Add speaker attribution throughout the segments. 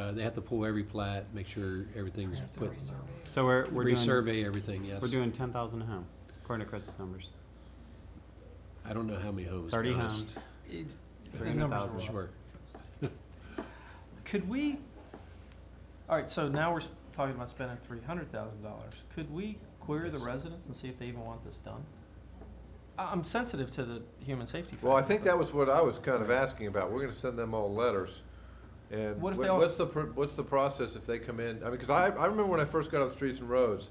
Speaker 1: uh, they have to pull every plat, make sure everything's put,
Speaker 2: So we're, we're doing,
Speaker 1: resurvey everything, yes.
Speaker 2: we're doing ten thousand a home, according to Chris's numbers.
Speaker 1: I don't know how many homes. to be
Speaker 2: Thirty
Speaker 1: honest.
Speaker 2: homes, three hundred
Speaker 3: numbers
Speaker 2: thousand.
Speaker 1: Sure.
Speaker 3: Could we, all right, so now we're s- talking about spending three hundred thousand dollars. Could we query the residents and see if they even want this done? I- I'm sensitive to the human safety factor.
Speaker 4: Well, I think
Speaker 3: but-
Speaker 4: that was what I was kind of asking about. We're gonna send them all letters. And
Speaker 3: What if
Speaker 4: what-
Speaker 3: they all-
Speaker 4: what's the, pr- what's the process if they come in? I mean, because I, I remember when I first got on Streets and Roads,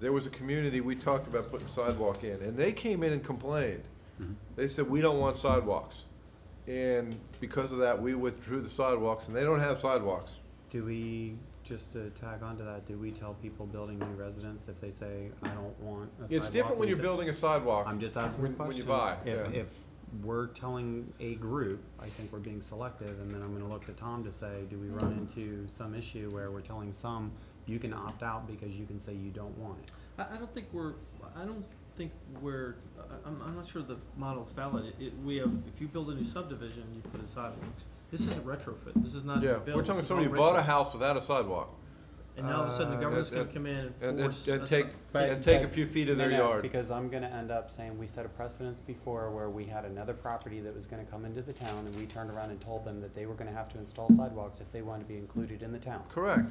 Speaker 4: there was a community, we talked about putting sidewalk in, and they came in and complained. They said, we don't want sidewalks. And because of that, we withdrew the sidewalks, and they don't have sidewalks.
Speaker 2: Do we, just to tag on to that, do we tell people building new residents if they say, I don't want a sidewalk?
Speaker 4: It's different when
Speaker 2: we
Speaker 4: you're
Speaker 2: say-
Speaker 4: building a sidewalk.
Speaker 2: I'm just asking the
Speaker 4: when-
Speaker 2: question.
Speaker 4: When you buy,
Speaker 2: If,
Speaker 4: yeah.
Speaker 2: if we're telling a group, I think we're being selective, and then I'm gonna look to Tom to say, do we run into some issue where we're telling some, you can opt out because you can say you don't want it?
Speaker 3: I, I don't think we're, I don't think we're, I- I'm, I'm not sure the model's valid. It, we have, if you build a new subdivision, you put in sidewalks. This is a retrofit, this is not a
Speaker 4: Yeah,
Speaker 3: build.
Speaker 4: we're talking
Speaker 3: this is
Speaker 4: somebody
Speaker 3: all
Speaker 4: who bought a
Speaker 3: retrofit.
Speaker 4: house without a sidewalk,
Speaker 3: And now all of a sudden the
Speaker 2: Uh,
Speaker 3: government's
Speaker 4: and-
Speaker 3: gonna come in
Speaker 4: and,
Speaker 3: and
Speaker 4: and,
Speaker 3: force.
Speaker 4: and
Speaker 3: a
Speaker 4: take,
Speaker 3: si-
Speaker 2: But-
Speaker 4: and take a
Speaker 2: but-
Speaker 4: few feet of
Speaker 2: No,
Speaker 4: their
Speaker 2: no,
Speaker 4: yard.
Speaker 2: Because I'm gonna end up saying, we set a precedence before where we had another property that was gonna come into the town, and we turned around and told them that they were gonna have to install sidewalks if they wanted to be included in the town.
Speaker 4: Correct.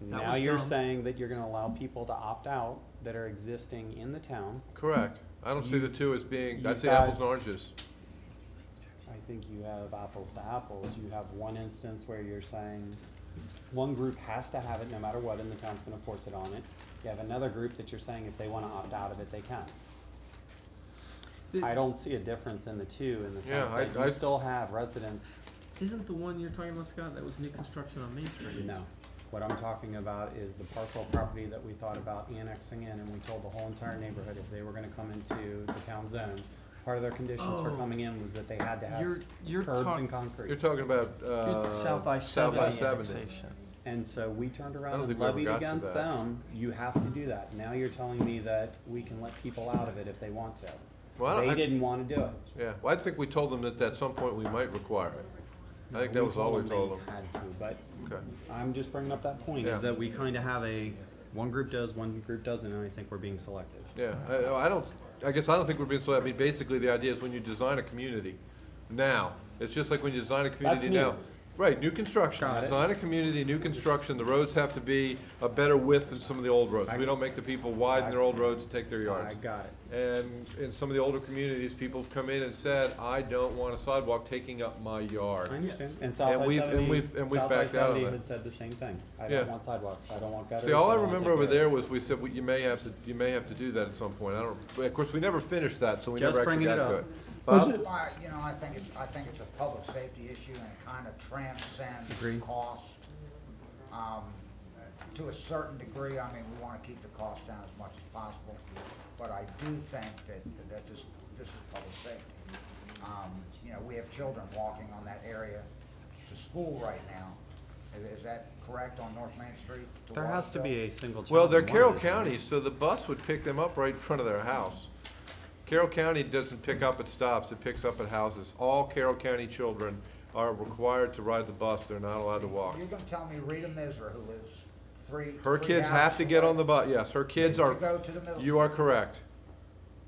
Speaker 3: That
Speaker 2: Now
Speaker 3: was
Speaker 2: you're
Speaker 3: dumb.
Speaker 2: saying that you're gonna allow people to opt out that are existing in the town.
Speaker 4: Correct. I don't see the two as being, I
Speaker 2: you've
Speaker 4: see
Speaker 2: got-
Speaker 4: apples and oranges.
Speaker 2: I think you have apples to apples. You have one instance where you're saying one group has to have it no matter what, and the town's gonna force it on it. You have another group that you're saying if they wanna opt out of it, they can.
Speaker 3: The-
Speaker 2: I don't see a difference in the two in the sense
Speaker 4: Yeah, I-
Speaker 2: that you
Speaker 4: I-
Speaker 2: still have residents,
Speaker 3: Isn't the one you're talking about, Scott, that was new construction on Main Street?
Speaker 2: no. What I'm talking about is the parcel property that we thought about annexing in, and we told the whole entire neighborhood if they were gonna come into the town zone, part of their conditions for
Speaker 3: Oh.
Speaker 2: coming in was that they had to
Speaker 3: You're,
Speaker 2: have
Speaker 3: you're
Speaker 2: curbs
Speaker 3: talking.
Speaker 2: and concrete.
Speaker 4: You're talking about, uh.
Speaker 3: South I
Speaker 4: South
Speaker 3: seventy
Speaker 4: I
Speaker 3: annexation.
Speaker 2: And so we turned
Speaker 4: I
Speaker 2: around
Speaker 4: don't
Speaker 2: and
Speaker 4: think we ever
Speaker 2: levied
Speaker 4: got to
Speaker 2: against
Speaker 4: that.
Speaker 2: them, you have to do that. Now you're telling me that we can let people out of it if they want to.
Speaker 4: Well, I
Speaker 2: They
Speaker 4: don't- I-
Speaker 2: didn't wanna do it.
Speaker 4: Yeah, well, I think we told them that at some point we might require it. I think that was all we told them.
Speaker 2: They had to, but
Speaker 4: Okay.
Speaker 2: I'm just bringing up that point,
Speaker 4: Yeah.
Speaker 2: is that we kinda have a, one group does, one group doesn't, and I think we're being selective.
Speaker 4: Yeah, I, I don't, I guess I don't think we're being, so, I mean, basically, the idea is when you design a community now, it's just like when you design a community
Speaker 2: new.
Speaker 4: now. Right, new construction,
Speaker 2: Got it.
Speaker 4: design a community, new construction, the roads have to be a better width than some of the old roads. We don't make the people widen their old roads and take their
Speaker 2: I
Speaker 4: yards.
Speaker 2: got it.
Speaker 4: And in some of the older communities, people have come in and said, I don't want a sidewalk taking up my
Speaker 2: I
Speaker 4: yard.
Speaker 2: understand. And South
Speaker 4: And
Speaker 2: I
Speaker 4: we've- and
Speaker 2: seventy,
Speaker 4: we've- and we've
Speaker 2: South I
Speaker 4: backed out of
Speaker 2: seventy
Speaker 4: it.
Speaker 2: had said the same thing. I
Speaker 4: Yeah.
Speaker 2: don't want sidewalks, I don't want gutters.
Speaker 4: See, all I
Speaker 2: don't wanna
Speaker 4: remember
Speaker 2: take
Speaker 4: over
Speaker 2: care of it."
Speaker 4: there was we said, "Well, you may have to, you may have to do that at some point. I don't, but of course, we never finished that, so we
Speaker 2: Just
Speaker 4: never actually
Speaker 2: bringing it
Speaker 4: got to
Speaker 2: up.
Speaker 4: it.
Speaker 1: Was
Speaker 4: Bob?
Speaker 1: it-
Speaker 5: Well, you know, I think it's, I think it's a public safety issue and it kind of transcends
Speaker 2: Agree.
Speaker 5: cost. Um, To a certain degree, I mean, we want to keep the cost down as much as possible, but I do think that, that this, this is public safety. Um, You know, we have children walking on that area to school right now. Is- Is that correct on North Main Street? to
Speaker 2: There has to be
Speaker 5: Watersville?
Speaker 2: a single.
Speaker 4: Well, they're
Speaker 2: child in one
Speaker 4: Carroll
Speaker 2: of these
Speaker 4: County, so the bus would pick them up right in front of their house. Carroll County doesn't pick up at stops, it picks up at houses. All Carroll County children are required to ride the bus, they're not allowed to walk.
Speaker 5: You're going to tell me Rita Miser, who lives three.
Speaker 4: Her
Speaker 5: three
Speaker 4: kids have to
Speaker 5: houses
Speaker 4: get on
Speaker 5: away,
Speaker 4: the bus, yes, her kids are.
Speaker 5: To go to the middle.
Speaker 4: You are correct.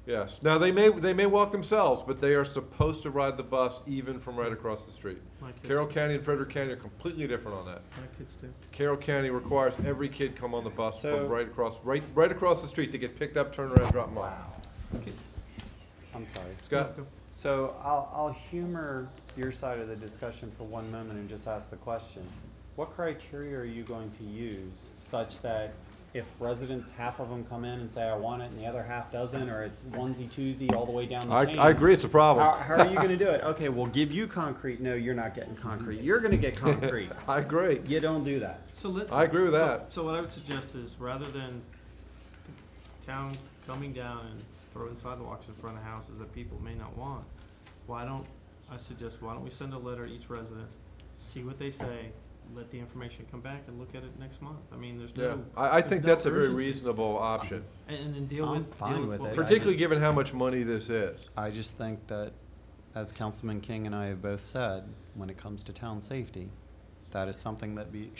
Speaker 4: Yes. Now, they may, they may walk themselves, but they are supposed to ride the bus even from right across the street.
Speaker 3: My kids-
Speaker 4: Carroll County and Frederick County are completely different on that.
Speaker 3: My kids do.
Speaker 4: Carroll County requires every kid come on the bus
Speaker 2: So-
Speaker 4: from right across, right, right across the street to get picked up, turn around, drop them off.
Speaker 2: I'm sorry.
Speaker 4: Scott?
Speaker 2: So I'll, I'll humor your side of the discussion for one moment and just ask the question. What criteria are you going to use such that if residents, half of them come in and say, I want it, and the other half doesn't, or it's onesie twosie all the way down the chain?
Speaker 4: it's a
Speaker 2: How,
Speaker 4: problem.
Speaker 2: how are you gonna do it? Okay, we'll give you concrete. No, you're not getting concrete. You're gonna get concrete.
Speaker 4: I agree.
Speaker 2: You don't do that.
Speaker 3: So let's.
Speaker 4: I agree with
Speaker 3: so-
Speaker 4: that.
Speaker 3: So what I would suggest is, rather than town coming down and throwing sidewalks in front of houses that people may not want, why don't, I suggest, why don't we send a letter to each resident, see what they say, let the information come back and look at it next month? I mean, there's
Speaker 4: Yeah,
Speaker 3: no,
Speaker 4: I, I
Speaker 3: There's
Speaker 4: think
Speaker 3: no
Speaker 4: that's a very
Speaker 3: urgency.
Speaker 4: reasonable option,
Speaker 3: and, and then deal
Speaker 2: I'm
Speaker 3: with,
Speaker 2: fine
Speaker 3: deal with
Speaker 2: with
Speaker 3: what
Speaker 2: it.
Speaker 3: we.
Speaker 2: Partic-
Speaker 4: particularly given how much money this is.
Speaker 2: I just think that, as Councilman King and I have both said, when it comes to town safety, that is something that be,